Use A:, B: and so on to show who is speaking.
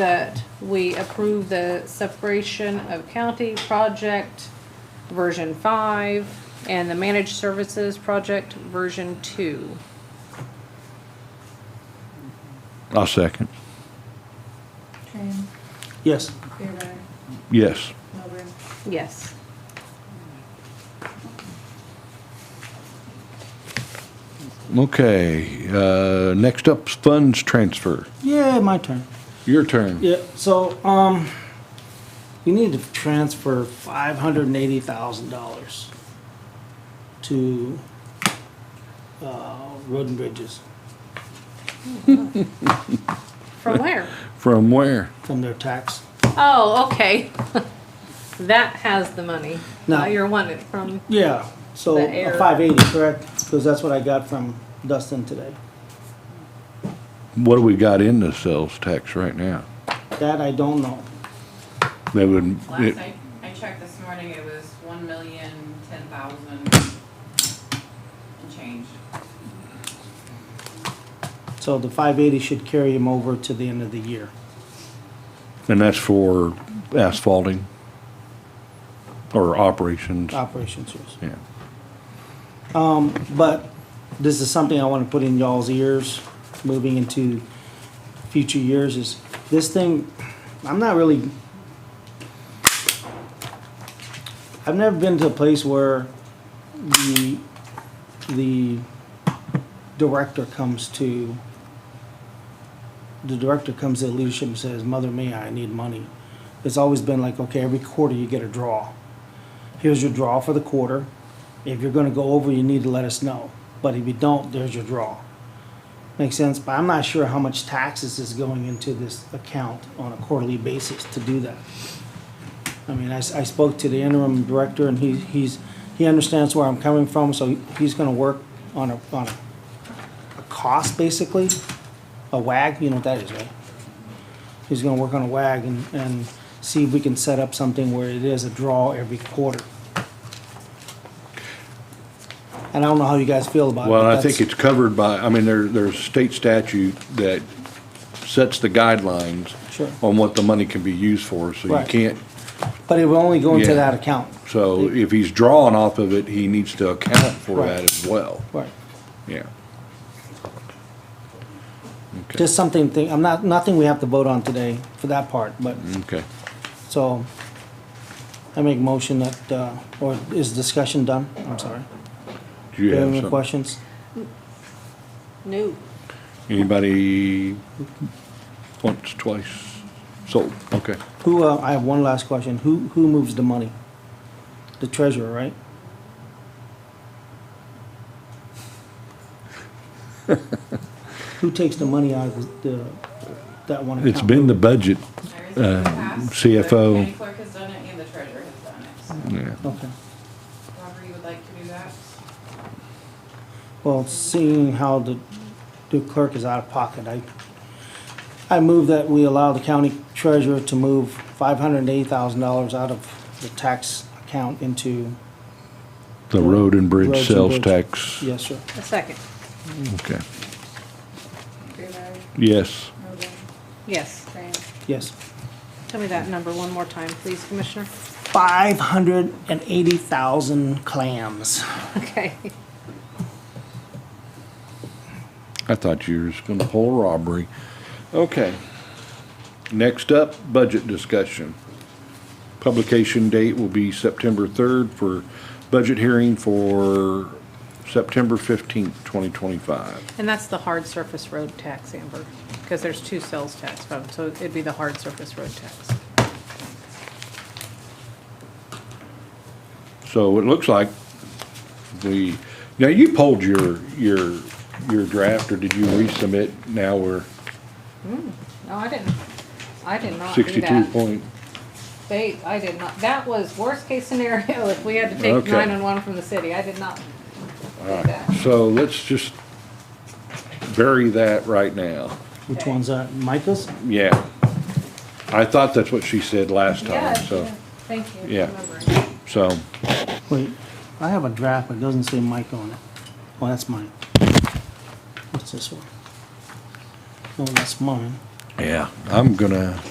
A: that we approve the separation of county project version five and the managed services project version two.
B: I'll second.
C: Tran,
D: Yes.
C: Fairweather,
B: Yes.
C: Milburn.
A: Yes.
B: Okay, uh, next up is funds transfer.
D: Yeah, my turn.
B: Your turn.
D: Yeah, so, um, we need to transfer five hundred and eighty thousand dollars to, uh, road and bridges
A: From where?
B: From where?
D: from their tax.
A: Oh, okay. That has the money.
D: No.
A: Uh, You're wanting it from,
D: Yeah, so
A: The air.
D: five eighty, correct? Because that's what I got from Dustin today.
B: What do we got in the sales tax right now?
D: That I don't know.
B: That would,
E: Last
B: it-
E: night, I checked this morning, it was one million, ten thousand and change.
D: So the five eighty should carry him over to the end of the year.
B: and that's for asphalting or operations?
D: Uh, Operations years.
B: Yeah.
D: But this is something I want to put in y'all's ears moving into future years is this thing, I'm not really, I've never been to a place where the, the director comes to, the director comes to the leadership and says, mother me, I need money. It's always been like, okay, every quarter you get a draw here's your draw for the quarter. If you're gonna go over, you need to let us know. But if you don't, there's your draw. Makes sense, but I'm not sure how much taxes is going into this account on a quarterly basis to do that. I mean, I, s- I spoke to the interim director and he, he's, he understands where I'm coming from, so he's gonna work on a, on a, a cost basically, a WAG, you know what that is, right? He's gonna work on a WAG and, and see if we can set up something where it is a draw every quarter. And I don't know how you guys feel about it.
B: Well,
D: but
B: I
D: that's-
B: think it's covered by, I mean, there, there's state statute that sets the guidelines
D: Sure.
B: on what the money can be used for, so you
D: Right.
B: can't,
D: But it will only go into
B: Yeah.
D: that account.
B: so if he's drawing off of it, he needs to account for
D: Right.
B: that as well.
D: Right.
B: Yeah. Okay.
D: Just something, thi- I'm not, nothing we have to vote on today for that part, but,
B: Okay.
D: so, I make motion that, uh, or is discussion done? I'm sorry.
B: Do you
D: Do you
B: have
D: have any
B: something?
D: questions?
A: no,
B: Anybody once, twice? So, okay.
D: Who, uh, I have one last question. Who, who moves the money? The treasurer, right? Who takes the money out of the, that one account?
B: It's been the budget.
E: There's the past, the
B: CFO.
E: county clerk has done it and the treasurer has done it. So
B: Yeah.
D: Okay.
E: However you would like to do that.
D: Well, seeing how the, the clerk is out of pocket, I, I move that we allow the county treasurer to move five hundred and eighty thousand dollars out of the tax account into,
B: The road and
D: Roads
B: bridge
D: and
B: sales
D: bridge.
B: tax.
D: yes, sir.
A: a second.
B: Okay.
C: Fairweather,
B: Yes.
C: Milburn,
A: Yes.
C: Tran,
D: Yes.
A: Tell me that number one more time, please, Commissioner.
D: Five hundred and eighty thousand clams.
A: Okay.
B: I thought you were just gonna pull robbery. Okay. Next up, budget discussion. Publication date will be September third for budget hearing for September fifteenth, twenty twenty-five.
A: And that's the hard surface road tax, Amber, because there's two sales tax votes, so it'd be the hard surface road tax.
B: So it looks like we, now you pulled your, your, your draft, or did you resubmit? Now we're
A: No, I didn't, I did not do
B: sixty-two
A: that.
B: point,
A: They, I did not, that was worst case scenario, if we had to take
B: Okay.
A: nine-one-one from the city, I did not do that.
B: so let's just bury that right now.
D: Which
A: Okay.
D: one's that? Micah's?
B: Yeah. I thought that's what she said last
A: Yeah,
B: time, so,
A: yeah, thank you. for
B: Yeah.
A: remembering.
B: so,
D: Wait, I have a draft, but it doesn't say Mike on it. Oh, Oh, that's mine. What's this one? No, that's mine.
B: Yeah. I'm gonna